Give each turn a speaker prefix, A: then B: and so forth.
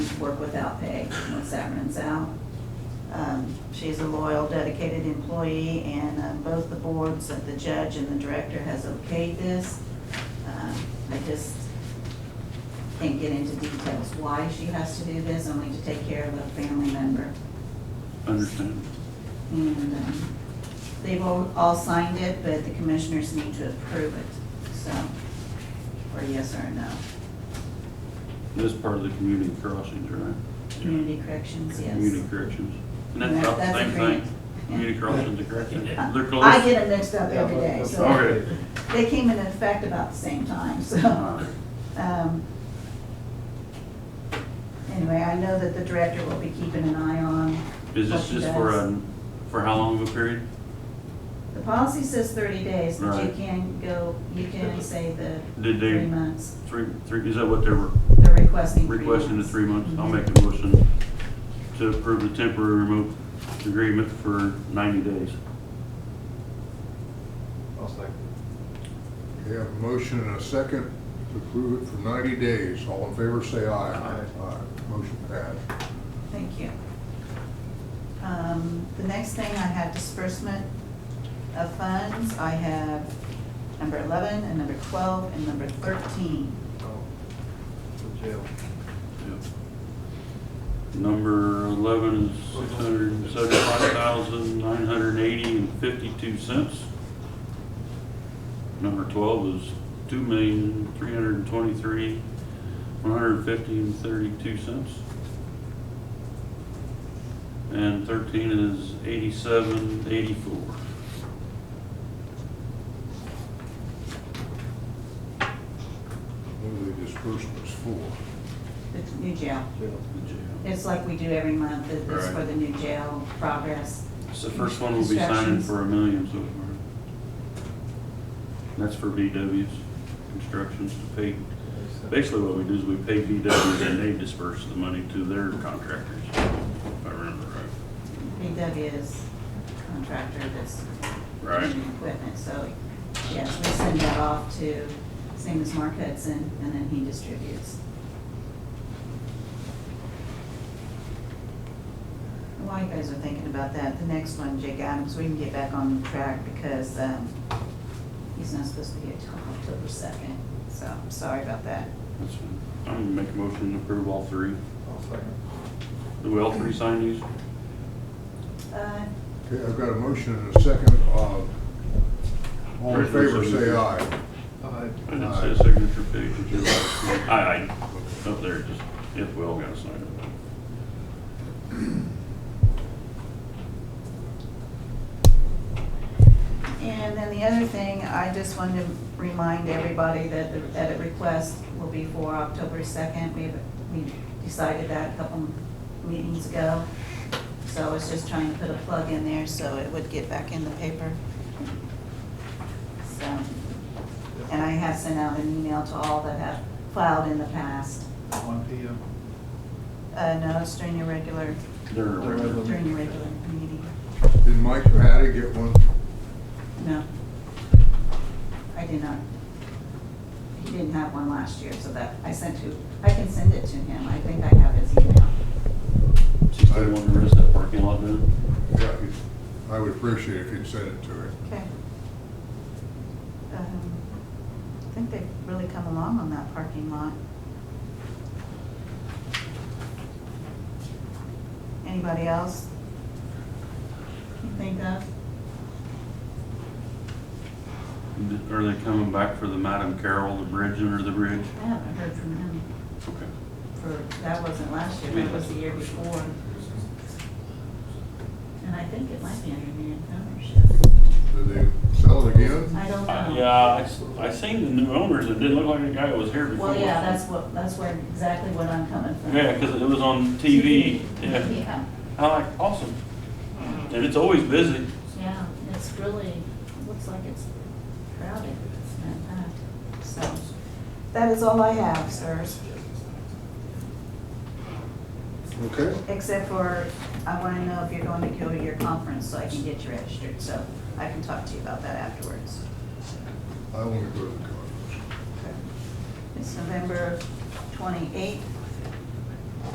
A: work without pay once that runs out. Um, She's a loyal, dedicated employee, and uh, both the boards, uh, the judge and the director has okayed this. Uh, I just can't get into details why she has to do this, only to take care of a family member.
B: Understand.
A: And um, they've all all signed it, but the commissioners need to approve it, so, or yes or no.
B: This part of the community crossings, right?
A: Community corrections, yes.
B: Community corrections. And that's
A: And
B: about the
A: that's a
B: same
A: grant.
B: thing. Community crossings and corrections. They're close.
A: Uh, I get them mixed up every day, so.
B: Okay.
A: They came into effect about the same time, so.
B: Alright.
A: um, Anyway, I know that the director will be keeping an eye on.
B: Is
A: what
B: this
A: she
B: just for
A: does.
B: a, for how long of a period?
A: The policy says thirty days, but you
B: Right.
A: can go, you can say the
B: Did they-
A: three months.
B: Three, three, is that what they were
A: They're requesting three months.
B: requesting, the three months? I'll
A: Mhm.
B: make a motion to approve the temporary remote agreement for ninety days.
C: I'll second.
D: We have a motion and a second to approve it for 90 days. All in favor, say aye.
C: Aye.
D: Motion passed.
A: Thank you. Um, The next thing, I have disbursement of funds. I have number 11 and number 12 and number 13.
C: Oh, The jail.
B: Number eleven is six hundred and seventy-five thousand, nine hundred and eighty and fifty-two cents. Number twelve is two million, three hundred and twenty-three, one hundred and fifty and thirty-two cents. And thirteen is eighty-seven, eighty-four.
D: Move the disbursements for.
A: It's new jail.
C: Jail.
A: It's like we do every month. It- It's for
B: Right.
A: the new jail progress.
B: So the first one will be signing
A: Instructions.
B: for a million so far. That's for VW's constructions to pay Basically, what we do is we pay VW and they disperse the money to their contractors, if I remember right.
A: BW is contractor that's
B: Right.
A: doing the equipment, so yes, we send that off to, same as Mark Hudson, and then he distributes. While you guys are thinking about that, the next one, Jake Adams, we can get back on track because um, he's not supposed to be here till October second, so I'm sorry about that.
B: That's fine. I'm gonna make a motion to approve all three.
C: I'll second.
B: Do we all three sign these?
A: Uh,
D: Okay, I've got a motion and a second. Uh, All in favor, say aye.
C: Aye.
B: I didn't say a signature page, but you're right. Aye, aye. Up there, just, if we all gotta sign it.
A: And then the other thing, I just wanted to remind everybody that the edit request will be for October second. We, we decided that a couple meetings ago. So I was just trying to put a plug in there so it would get back in the paper. So, and I have sent out an email to all that have filed in the past.
C: One P M.
A: Uh, no, it's during your regular,
B: They're regular.
A: during your regular meeting.
D: Did Mike Patty get one?
A: No. I did not. He didn't have one last year, so that, I sent to, I can send it to him. I think I have his email.
B: She's the one who rents that parking lot down.
D: Yeah, he- I would appreciate it if you'd send it to him.
A: Okay. Um, I think they've really come along on that parking lot. Anybody else? You think of?
B: Are they coming back for the Madam Carroll, the bridge under the bridge?
A: I haven't heard from him
B: Okay.
A: for, that wasn't last year, that was the year before. And I think it might be under new ownership.
D: Did they sell it again?
A: I don't know.
B: Uh, Yeah, I, s- I seen the new owners, it didn't look like the guy that was here before.
A: Well, yeah, that's what, that's where, exactly what I'm coming from.
B: Yeah, 'cause it was on TV, yeah.
A: Yeah,
B: I like, awesome. And it's always busy.
A: yeah, it's really, looks like it's crowded, it's not packed. so. That is all I have, sirs,
D: Okay.
A: except for I want to know if you're going to go to your conference so I can get you registered, so I can talk to you about that afterwards.
D: I want to go to the conference.
A: It's November twenty-eighth